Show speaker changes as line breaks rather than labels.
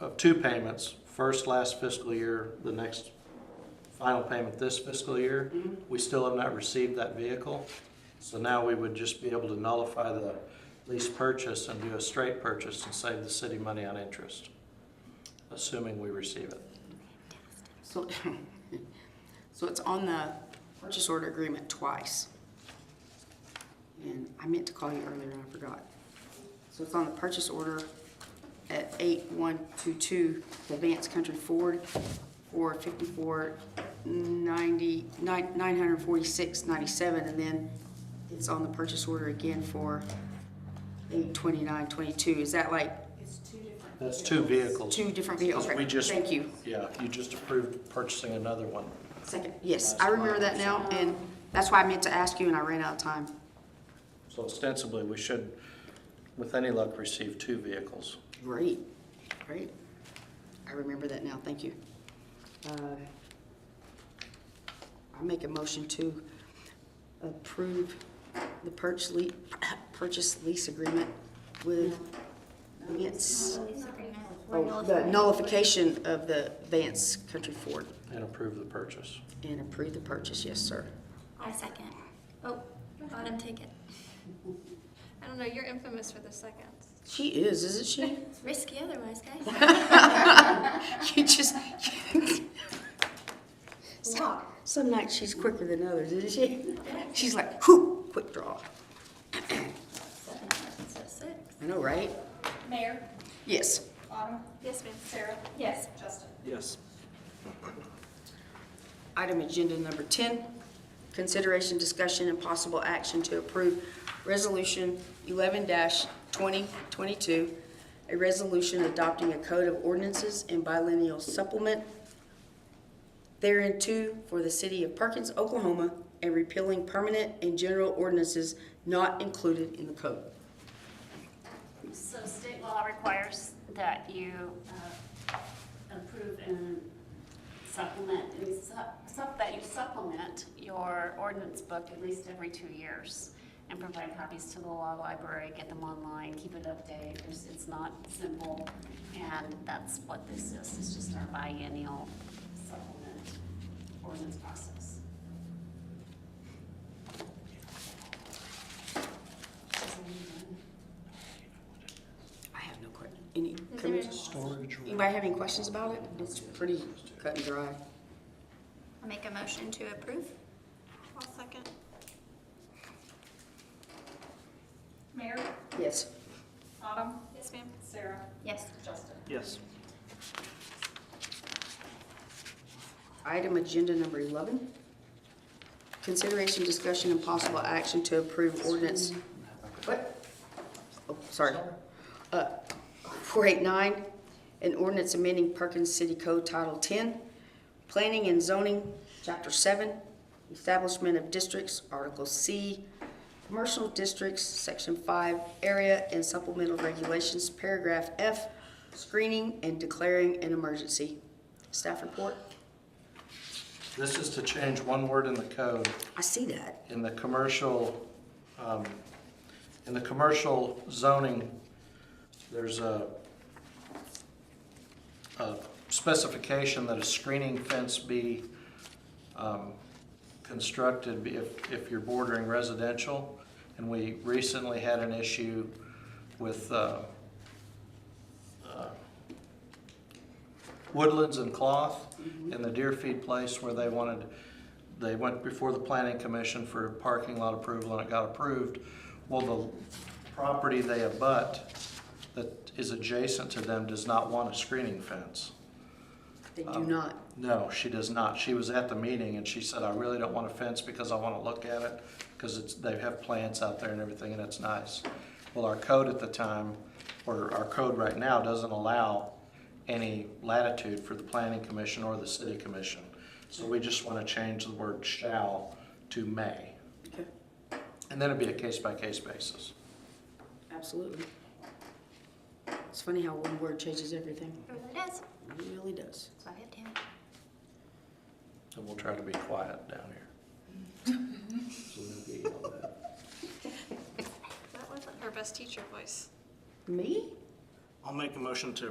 of two payments, first last fiscal year, the next final payment this fiscal year. We still have not received that vehicle. So now we would just be able to nullify the lease purchase and do a straight purchase and save the city money on interest, assuming we receive it.
So, so it's on the purchase order agreement twice. And I meant to call you earlier and I forgot. So it's on the purchase order at eight one two two, Advanced Country Ford, for fifty-four ninety, nine, nine hundred forty-six ninety-seven, and then it's on the purchase order again for eight twenty-nine twenty-two. Is that like
That's two vehicles.
two different vehicles?
We just-
Thank you.
Yeah, you just approved purchasing another one.
Second, yes, I remember that now, and that's why I meant to ask you, and I ran out of time.
So ostensibly, we should, with any luck, receive two vehicles.
Great, great. I remember that now, thank you. Uh, I make a motion to approve the purchase le, purchase lease agreement with Vance. Oh, the nullification of the Vance Country Ford
And approve the purchase.
and approve the purchase, yes, sir.
I second. Oh, let him take it.
I don't know, you're infamous for the seconds.
She is, isn't she?
It's risky otherwise, guys.
You just. some, some nights she's quicker than others, isn't she? She's like, whoo, quick draw.
Seven, so six.
I know, right?
Mayor,
Yes.
Autumn,
Yes, ma'am.
Sarah,
Yes.
Justin.
Yes.
Item agenda number 10, consideration, discussion, and possible action to approve Resolution 11-2022, a resolution adopting a code of ordinances and biennial supplement too for the city of Perkins, Oklahoma, and repealing permanent and general ordinances not included in the code.
So state law requires that you uh, approve and supplement, and sup- sup- that you supplement your ordinance book at least every two years and provide copies to the law library, get them online, keep it updated. It's- It's not simple, and that's what this is. It's just our biennial supplement ordinance process.
I have no que, any,
Is there
comments? anybody have any questions about it? It's pretty cut and dry.
I'll make a motion to approve.
I'll second.
Mayor,
Yes.
Autumn,
Yes, ma'am.
Sarah,
Yes.
Justin.
Yes.
Item agenda number 11. Consideration, discussion, and possible action to approve ordinance. What? Oh, sorry. Uh, 489, an ordinance amending Perkins City Code Title 10, Planning and Zoning, Chapter 7, Establishment of Districts, Article C, Commercial Districts, Section 5, Area and Supplemental Regulations, Paragraph F, Screening and Declaring an Emergency. Staff report?
This is to change one word in the code.
I see that.
in the commercial, um, in the commercial zoning, there's a, a specification that a screening fence be, um, constructed if, if you're bordering residential. And we recently had an issue with, uh, uh, Woodlands and Cloth and the Deer Feed Place where they wanted, they went before the planning commission for parking lot approval and it got approved. Well, the property they abut that is adjacent to them does not want a screening fence.
They do not.
No, she does not. She was at the meeting and she said, I really don't want a fence because I want to look at it because it's, they have plants out there and everything and it's nice. Well, our code at the time, or our code right now, doesn't allow any latitude for the planning commission or the city commission. So we just want to change the word shall to may.
Okay,
And then it'd be a case by case basis.
absolutely. It's funny how one word changes everything.
It really does.
It really does.
That's why we have to.
And we'll try to be quiet down here. So nobody yelled at.
That wasn't her best teacher voice.
Me?
I'll make a motion to